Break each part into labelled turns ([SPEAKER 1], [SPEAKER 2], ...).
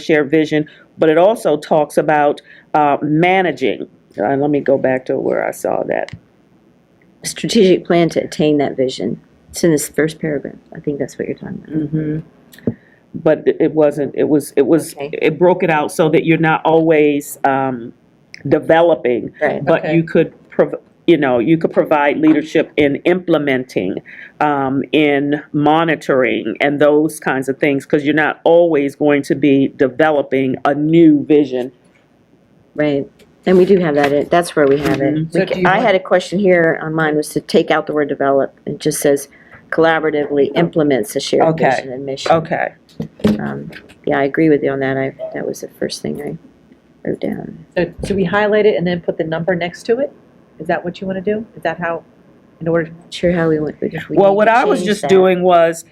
[SPEAKER 1] share vision, but it also talks about uh, managing. Uh, let me go back to where I saw that.
[SPEAKER 2] strategic plan to attain that vision. It's in this first paragraph. I think that's what you're talking about.
[SPEAKER 1] Mm. But it- it wasn't, it was, it was,
[SPEAKER 2] Okay.
[SPEAKER 1] it broke it out so that you're not always um, developing,
[SPEAKER 2] Right.
[SPEAKER 1] but you could, prov- you know, you could provide leadership in implementing, um, in monitoring, and those kinds of things, because you're not always going to be developing a new vision.
[SPEAKER 2] Right. And we do have that, in- that's where we have it.
[SPEAKER 1] Mm-hmm.
[SPEAKER 2] We
[SPEAKER 3] So
[SPEAKER 2] ca-
[SPEAKER 3] do you
[SPEAKER 2] I
[SPEAKER 3] want-
[SPEAKER 2] had a question here on mine was to take out the word develop. It just says collaboratively implements a shared
[SPEAKER 1] Okay.
[SPEAKER 2] vision and mission.
[SPEAKER 1] Okay.
[SPEAKER 2] Um, Yeah, I agree with you on that. I, that was the first thing I wrote down.
[SPEAKER 3] So should we highlight it and then put the number next to it? Is that what you want to do? Is that how, in order,
[SPEAKER 2] Not Sure how we went, but if we need
[SPEAKER 1] Well,
[SPEAKER 2] to
[SPEAKER 1] what I was
[SPEAKER 2] change
[SPEAKER 1] just
[SPEAKER 2] that.
[SPEAKER 1] doing was,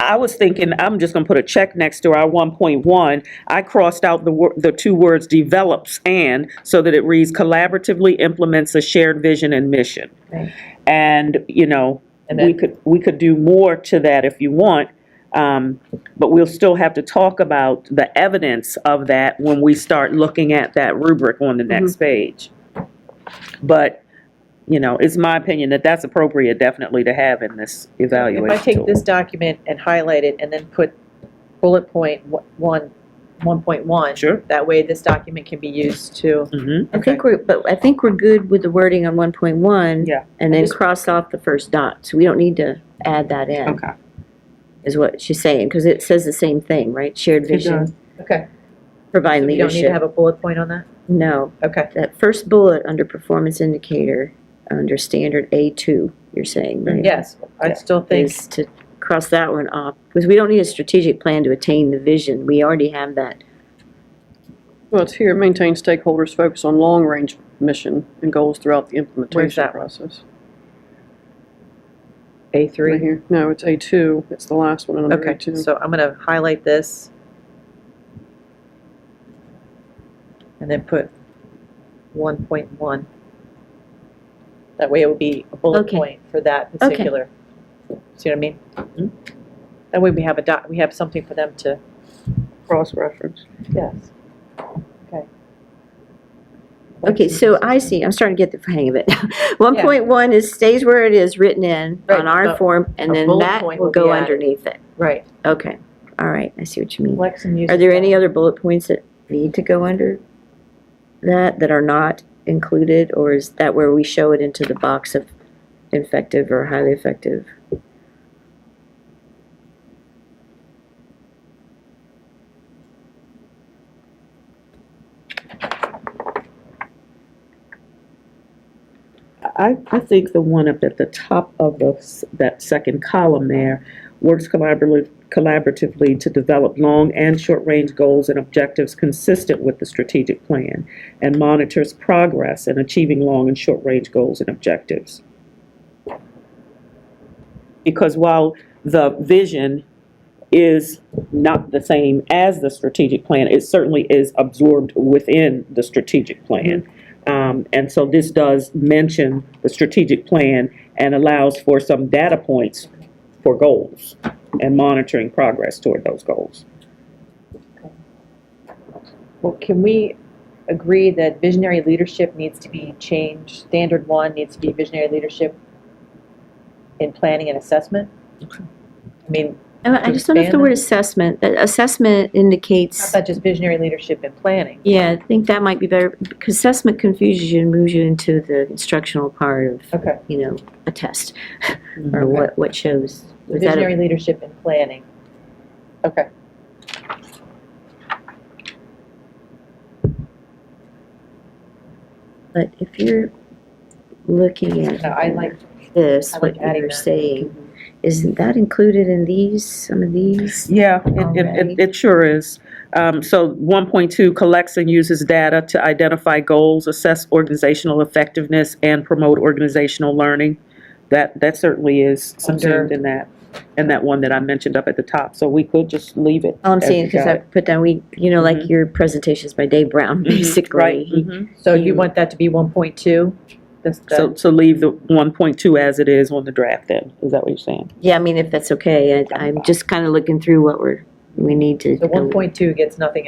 [SPEAKER 1] I was thinking, I'm just gonna put a check next to our one point one. I crossed out the wor, the two words develops and, so that it reads collaboratively implements a shared vision and mission.
[SPEAKER 3] Right.
[SPEAKER 1] And, you know,
[SPEAKER 3] And
[SPEAKER 1] we
[SPEAKER 3] then-
[SPEAKER 1] could, we could do more to that if you want. Um, but we'll still have to talk about the evidence of that when we start looking at that rubric on the
[SPEAKER 2] Mm-hmm.
[SPEAKER 1] next page. But, you know, it's my opinion that that's appropriate definitely to have in this
[SPEAKER 3] if I
[SPEAKER 1] evaluation
[SPEAKER 3] take
[SPEAKER 1] tool.
[SPEAKER 3] this document and highlight it and then put bullet point wa- one, 1.1?
[SPEAKER 1] Sure.
[SPEAKER 3] That way this document can be used to,
[SPEAKER 1] Mhm.
[SPEAKER 2] I think we're, but I think we're good with the wording on one point one.
[SPEAKER 1] Yeah.
[SPEAKER 2] And then
[SPEAKER 3] Just-
[SPEAKER 2] cross off the first dot, so we don't need to add that in.
[SPEAKER 1] Okay.
[SPEAKER 2] Is what she's saying, because it says the same thing, right? Shared
[SPEAKER 1] does.
[SPEAKER 2] vision,
[SPEAKER 3] okay.
[SPEAKER 2] provide
[SPEAKER 3] You don't need to
[SPEAKER 2] leadership.
[SPEAKER 3] have a bullet point on that?
[SPEAKER 2] No,
[SPEAKER 3] Okay.
[SPEAKER 2] that first bullet under performance indicator, under standard A two, you're saying, right?
[SPEAKER 3] Yes, I still think,
[SPEAKER 2] Is to cross that one off, because we don't need a strategic plan to attain the vision. We already have that.
[SPEAKER 4] Well, it's here, maintain stakeholders' focus on long-range mission and goals throughout the implementation
[SPEAKER 3] that one?
[SPEAKER 4] process. Right
[SPEAKER 3] A3.
[SPEAKER 4] here, no, it's A2, it's the last one under
[SPEAKER 3] Okay,
[SPEAKER 4] A2.
[SPEAKER 3] so I'm going to highlight this. And then put 1.1. That way it would be a bullet
[SPEAKER 2] Okay. Mm-hmm.
[SPEAKER 3] point for that particular. See what I mean? That way we have a doc, we have something for them to.
[SPEAKER 1] Cross-reference.
[SPEAKER 3] Yes.
[SPEAKER 2] Okay, so I see, I'm starting to get the hang of it. One point one is stays where it is written in
[SPEAKER 3] Right,
[SPEAKER 2] on
[SPEAKER 3] but
[SPEAKER 2] our form, and
[SPEAKER 3] a
[SPEAKER 2] then
[SPEAKER 3] bullet
[SPEAKER 2] that
[SPEAKER 3] point
[SPEAKER 2] will
[SPEAKER 3] will be
[SPEAKER 2] go
[SPEAKER 3] added.
[SPEAKER 2] underneath it.
[SPEAKER 3] Right.
[SPEAKER 2] Okay, all right, I see what you mean.
[SPEAKER 3] Lexham uses
[SPEAKER 2] Are there
[SPEAKER 3] that.
[SPEAKER 2] any other bullet points that need to go under that, that are not included? Or is that where we show it into the box of effective or highly effective?
[SPEAKER 1] I, I think the one up at the top of the, s- that second column there, works collaboratively, collaboratively to develop long and short-range goals and objectives consistent with the strategic plan, and monitors progress in achieving long and short-range goals and objectives. Because while the vision is not the same as the strategic plan, it certainly is absorbed within the strategic plan. Um, and so this does mention the strategic plan and allows for some data points for goals and monitoring progress toward those goals.
[SPEAKER 3] Well, can we agree that visionary leadership needs to be changed? Standard one needs to be visionary leadership in planning and assessment? I mean,
[SPEAKER 2] And Uh, I just don't know if the
[SPEAKER 3] Expand
[SPEAKER 2] word
[SPEAKER 3] it.
[SPEAKER 2] assessment, that assessment
[SPEAKER 3] how
[SPEAKER 2] indicates,
[SPEAKER 3] about just visionary leadership in planning?
[SPEAKER 2] yeah, I think that might be better, because assessment confuses you and moves you into the instructional part of,
[SPEAKER 3] Okay.
[SPEAKER 2] you know, a test, or what, what shows. Was that a-
[SPEAKER 3] Mm-hmm. Visionary leadership in planning. Okay.
[SPEAKER 2] But if you're looking at
[SPEAKER 3] No, I like,
[SPEAKER 2] this,
[SPEAKER 3] I
[SPEAKER 2] what
[SPEAKER 3] like adding
[SPEAKER 2] you're
[SPEAKER 3] that.
[SPEAKER 2] saying, isn't that included in these, some of these?
[SPEAKER 1] Yeah, it- it, it,
[SPEAKER 2] Alrighty.
[SPEAKER 1] it sure is. Um, so one point two collects and uses data to identify goals, assess organizational effectiveness, and promote organizational learning. That, that certainly is subsumed
[SPEAKER 3] Under-
[SPEAKER 1] in that, in that one that I mentioned up at the top, so we could just leave it.
[SPEAKER 2] All Oh, I'm
[SPEAKER 1] as
[SPEAKER 2] saying,
[SPEAKER 1] we
[SPEAKER 2] because
[SPEAKER 1] got
[SPEAKER 2] I
[SPEAKER 1] it.
[SPEAKER 2] put down, we, you know, like
[SPEAKER 3] Mm-hmm.
[SPEAKER 1] Mhm.
[SPEAKER 2] your presentations by Dave Brown,
[SPEAKER 1] Right,
[SPEAKER 2] basically. He-
[SPEAKER 1] mhm.
[SPEAKER 3] so you want that to be one point two? This,
[SPEAKER 1] so,
[SPEAKER 3] the,
[SPEAKER 1] so leave the one point two as it is on the draft then, is that what you're saying?
[SPEAKER 2] Yeah, I mean, if that's okay, I- I'm just kind of looking through what we're, we need to.
[SPEAKER 3] the one point two gets nothing